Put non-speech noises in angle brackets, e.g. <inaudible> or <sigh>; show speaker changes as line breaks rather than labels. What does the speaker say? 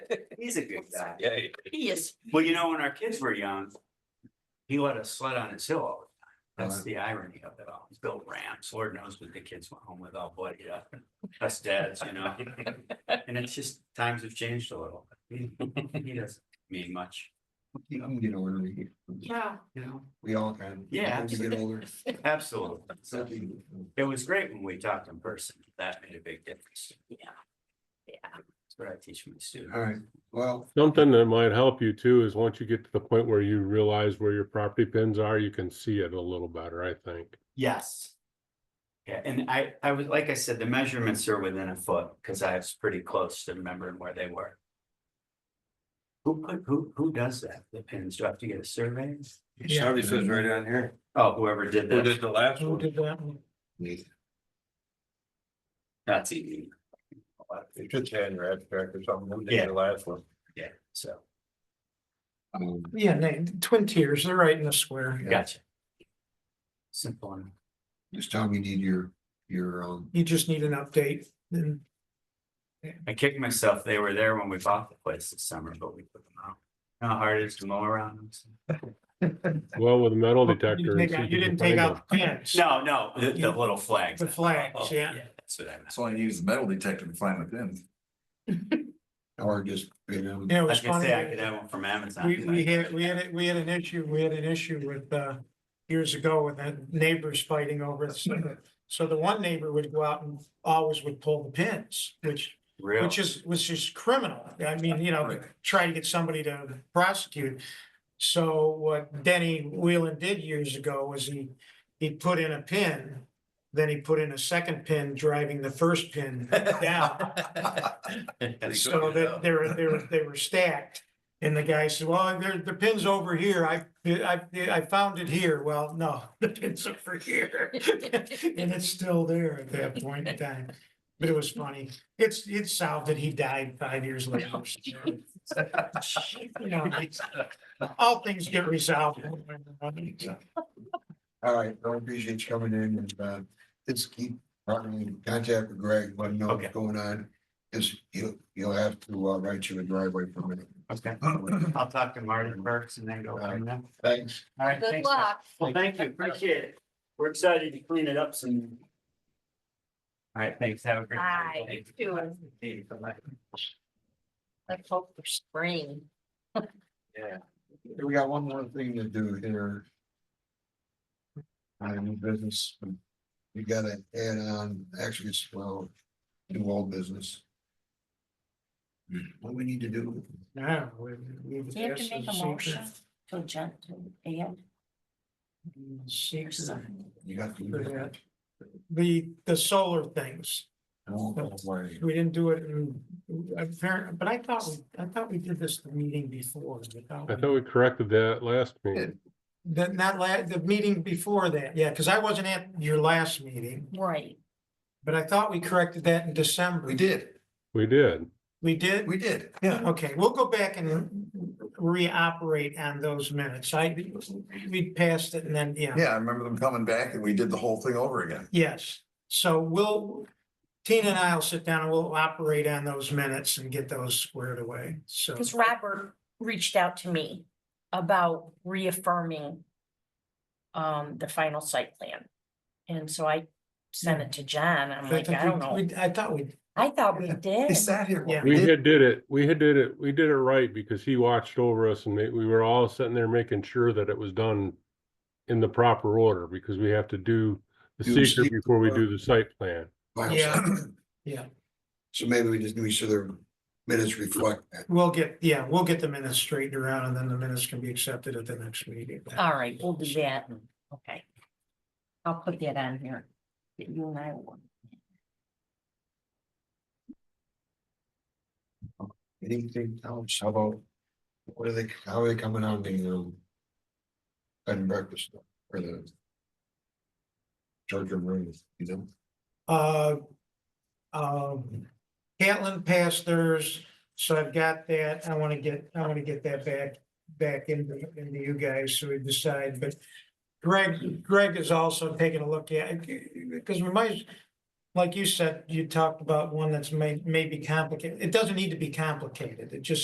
He's a good guy.
Yeah, yeah.
Yes.
Well, you know, when our kids were young, he let us sled on his hill all the time.
Uh-huh.
That's the irony of it all. He's built ramps. Lord knows what the kids went home with all bloody up. and Us dads, you
<laughs>
know. And it's just, times have changed a little. He he doesn't mean much,
You can get ornery.
Yeah.
you know?
We all can.
Yeah.
As we get older.
Absolutely. So
something-
it was great when we talked in person. That made a big difference.
Yeah. Yeah.
That's what I teach my students.
All right, well,
Something that might help you too is once you get to the point where you realize where your property pins are, you can see it a little better, I think.
Yes. Yeah, and I, I was, like I said, the measurements are within a foot, because I was pretty close to remembering where they were. Who put, who, who does that? The pins, do I have to get a survey?
It already says right on here.
Oh, whoever did
Who
that,
did the last
Who
one?
did that one?
we-
that's easy,
It should say in your abstract or something. Who did
Yeah.
the last one?
yeah, so,
um,
Yeah, they- twin tiers, they're right in the square.
Yeah.
gotcha. Simple and
Just tell me you need your, your, um,
You just need an update and
I kicked myself, they were there when we bought the place this summer, but we put them out. You know How hard it is to mow around them?
Well, with a metal
Oh, You
detector. and
take
see
out-
if
You
can
didn't take
find it.
out the pins.
No, no, the, the little flags.
The flags,
Oh,
yeah.
That's what I meant.
That's why I use the metal detector to find the pins.
<laughs> or just, you know,
Yeah, it
I
was
was gonna
funny.
say, I could have one from Amazon.
We, we had, we had, it- we had an issue, we had an issue with, uh, years ago with the neighbors fighting over it. So- So the one neighbor would go out and always would pull the pins, which,
Real.
which is, was just criminal. I mean, you know, try to get somebody to prosecute. So what Denny Wheelan did years ago was he, he put in a pin, then he put in a second pin, driving the first pin down. So that they were, they were, they were stacked. And the guy said, well, there, the pin's over here. I, I, I found it here. Well, no, <laughs> the pin's over
<laughs>
here. And it's still there at that point in time. But it was funny. It's, it's south that he died five
<laughs>
years later. You know, it's- uh, All things get resolved. one way or another, so.
all right, I appreciate you coming in and, uh, just keep probably in contact with Greg, let him know
Okay.
what's going on. Cause you'll, you'll have to, uh, write you a
<laughs>
driveway permit.
Okay, I'll talk to Martin Burks and then go from there.
Thanks.
All right,
Good
thanks. guys.
luck.
Well, thank you, appreciate it. We're excited to clean it up some. All right, thanks, have a great.
Bye.
night.
You too.
See you. Bye-bye.
Let's hope for spring.
We got one more thing to do here. I new business. We gotta add on, actually, it's well, new old business. What we need to do,
Yeah, we- we-
Do you have to make a motion to adjourn to add or
Seek-
something?
you got to.
for that. The, the solar things.
Oh, don't worry.
We didn't do it in, apparent, but I thought, we- I thought we did this the meeting before. I thought
I
we-
thought we corrected that last meeting.
Then that la, the meeting before that, yeah, because I wasn't at your last meeting,
Right.
but I thought we corrected that in December.
We did,
We did.
We did?
we did.
Yeah, okay, we'll go back and reoperate on those minutes. I, we passed it and then, yeah.
Yeah, I remember them coming back and we did the whole thing over again.
Yes, so we'll, Tina and I'll sit down and we'll operate on those minutes and get those squared away, so.
Because Robert reached out to me about reaffirming um, the final site plan. And so I sent it to John. I'm like,
think
I don't
we-
know.
we- I thought we,
I thought we did.
They sat here.
Yeah.
We had did it. We had did it. We did it right because he watched over us and ma- we were all sitting there making sure that it was done in the proper order because we have to do the
Do the
secret
secret
before we
first.
do the site plan.
Yeah.
<clears throat>
yeah,
So maybe we just make sure the minutes reflect that.
we'll get, yeah, we'll get the minutes straightened around and then the minutes can be accepted at the next meeting.
All right, we'll do that. Okay. I'll put that on here. that You and I will.
Anything else, how about, what are they, how are they coming on the, um, bed and breakfast stuff, or the charger rooms, you know?
Uh, um, Catlin passed theirs, so I've got that. I want to get, I want to get that back, back into, into you guys so we decide, but Greg, Greg is also taking a look at, because we might, like you said, you talked about one that's may, may be complicated. It doesn't need to be complicated. It just